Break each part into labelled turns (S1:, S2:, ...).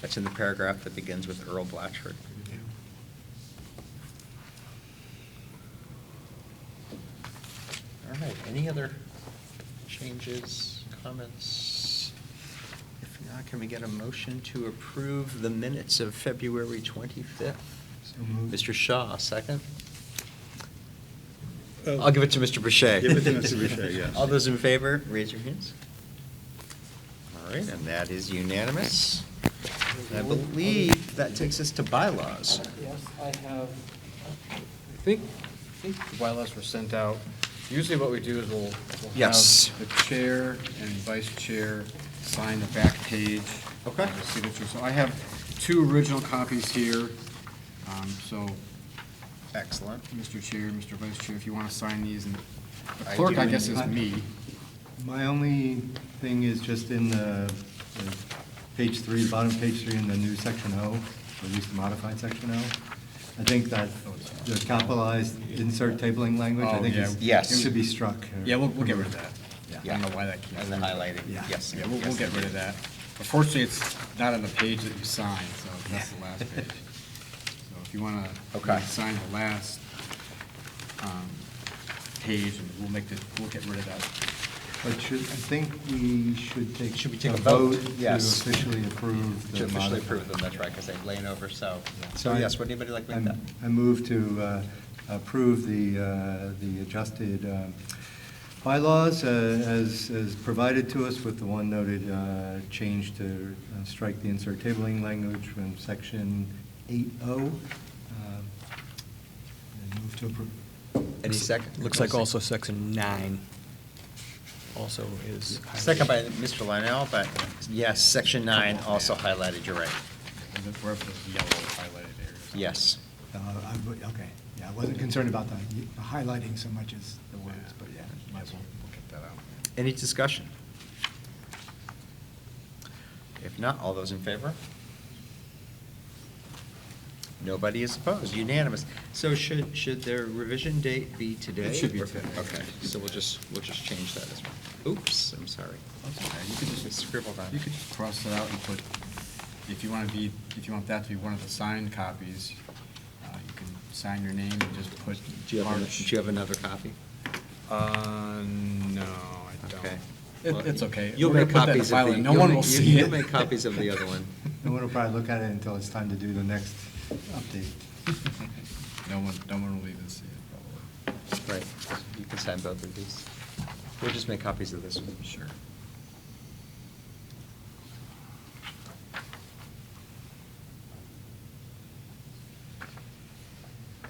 S1: That's in the paragraph that begins with Earl Blatchford. All right, any other changes, comments? If not, can we get a motion to approve the minutes of February 25th?
S2: So moved.
S1: Mr. Shaw, second?
S3: Oh.
S4: Uh,
S1: I'll give it to Mr. Boucher.
S4: Give it to Mr. Boucher, yes.
S1: All those in favor, raise your hands. All right, and that is unanimous. And I believe that takes us to bylaws.
S3: Yes, I have, I think, I think the bylaws were sent out. Usually what we do is we'll, we'll have
S1: Yes.
S3: the chair and vice chair sign the back page.
S1: Okay.
S3: of the Signature. So I have two original copies here. Um, So,
S1: Excellent.
S3: Mr. Chair, Mr. Vice Chair, if you want to sign these, and the
S1: I
S3: clerk,
S1: do
S3: I guess, is
S2: indeed.
S3: me.
S2: My only thing is just in the, the page three, bottom page three in the new section O, or at least the modified section O. I think that the capitalized insert tabling language, I
S3: Oh,
S2: think
S3: yeah.
S2: is.
S1: Yes.
S2: Should be struck. or-
S3: Yeah, we'll, we'll get rid of that. I
S1: Yeah.
S3: don't know why that came.
S1: And the
S3: through.
S1: highlighting,
S2: Yeah.
S1: yes.
S3: Yeah, we'll, we'll
S1: yes,
S3: get rid of that. Unfortunately, it's not on the page that you signed, so that's the last page. So if you want
S1: Okay.
S3: to sign the last um, page, and we'll make the, we'll get rid of that.
S2: But should, I think we should take.
S1: Should we take a vote? Yes.
S2: To officially approve the.
S1: To officially
S2: modified.
S1: approve them, that's right, because they've lain over, so. So
S2: So I-
S1: yes, would anybody like to make that?
S2: I'm- I move to uh, approve the, uh, the adjusted uh, bylaws uh, as, as provided to us with the one noted uh, change to uh, strike the insert tabling language from section 8O. um, And move to approve.
S1: Any second?
S5: Looks like also section nine also is. highlighted.
S1: Second by Mr. Lionel, but yes, section nine also highlighted, you're right.
S3: And then Wherever those yellow highlighted areas. are.
S1: Yes.
S6: Uh, I would- Okay, yeah, I wasn't concerned about the highlighting so much as the words, but yeah.
S3: Might as well, we'll get that out.
S1: Any discussion? If not, all those in favor? Nobody is opposed, unanimous. So should, should their revision date be today?
S3: It should be
S1: Or-
S3: today.
S1: Okay, so we'll just, we'll just change that as well. Oops, I'm sorry.
S3: That's okay, you could just-
S1: Scribbled on.
S3: You could just cross it out and put, if you want to be, if you want that to be one of the signed copies, uh, you can sign your name and just put
S1: Do you have, an-
S3: March.
S1: do you have another copy?
S3: Uh, no, I don't.
S1: Okay.
S3: It- It's okay.
S1: You'll
S3: We're gonna
S1: make
S3: put that in
S1: copies
S3: the file
S1: of the.
S3: and No
S1: you'll
S3: one
S1: make-
S3: will
S1: you-
S3: see it.
S1: You'll make copies of the other one.
S2: No one will probably look at it until it's time to do the next update.
S3: No one, no one will even see it, probably.
S1: Right, you can sign both of these. We'll just make copies of this one. Sure.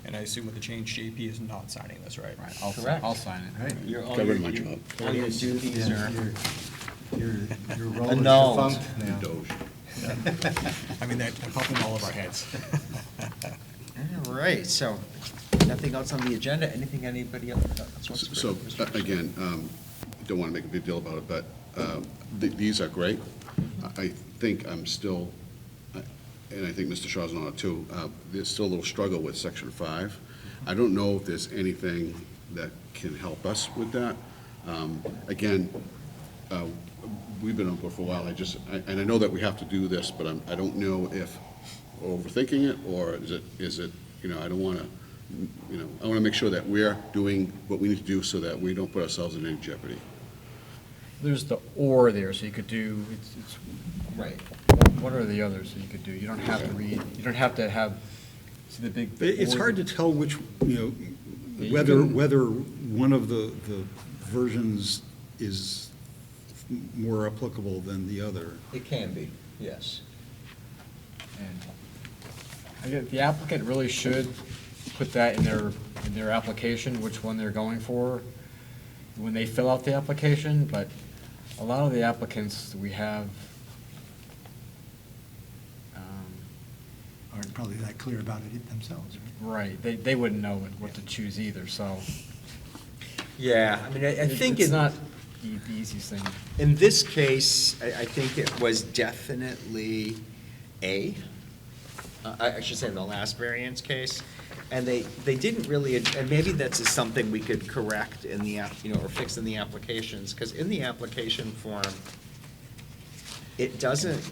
S5: And I assume with the change, JP is not signing this, right?
S3: Right, I'll,
S1: Correct.
S3: I'll sign it.
S2: Right.
S1: You're all
S4: Covered
S1: your-
S4: my
S1: your-
S4: job.
S1: All your duties
S2: Yeah,
S1: are.
S2: Your, your- your role is
S1: Annulled.
S2: defunct now.
S5: I mean, that popped in all of our heads.
S1: All right, so nothing else on the agenda? Anything anybody else wants to?
S4: So,
S1: bring?
S4: uh, again, um, don't want to make a big deal about it, but um, th- these are great. I- I think I'm still, I- and I think Mr. Shaw's on it too, uh, there's still a little struggle with section five. I don't know if there's anything that can help us with that. Um, Again, uh, we've been on board for a while, I just, I- and I know that we have to do this, but I'm, I don't know if we're overthinking it, or is it, is it, you know, I don't want to, you know, I want to make sure that we're doing what we need to do so that we don't put ourselves in any jeopardy.
S3: There's the or there, so you could do, it's,
S1: Right.
S3: it's, what are the others that you could do? You don't have to read, you don't have to have, see the big.
S7: It- It's
S3: or-
S7: hard to tell which, you
S3: Yeah,
S7: know,
S3: you
S7: whether,
S3: can-
S7: whether one of the, the versions is more applicable than the other.
S1: It can be, yes.
S3: And I guess The applicant really should put that in their, in their application, which one they're going for, when they fill out the application, but a lot of the applicants we have, um,
S6: Aren't probably that clear about it themselves, right?
S3: right, they, they wouldn't know what- what to choose either, so.
S1: Yeah, I mean, I I
S3: it-
S1: think
S3: It's
S1: in,
S3: not the the easiest thing.
S1: in this case, I, I think it was definitely A. Uh, I I should say in the last variance case. And they, they didn't really, ad- and maybe that's just something we could correct in the, app, you know, or fix in the applications, because in the application form, it doesn't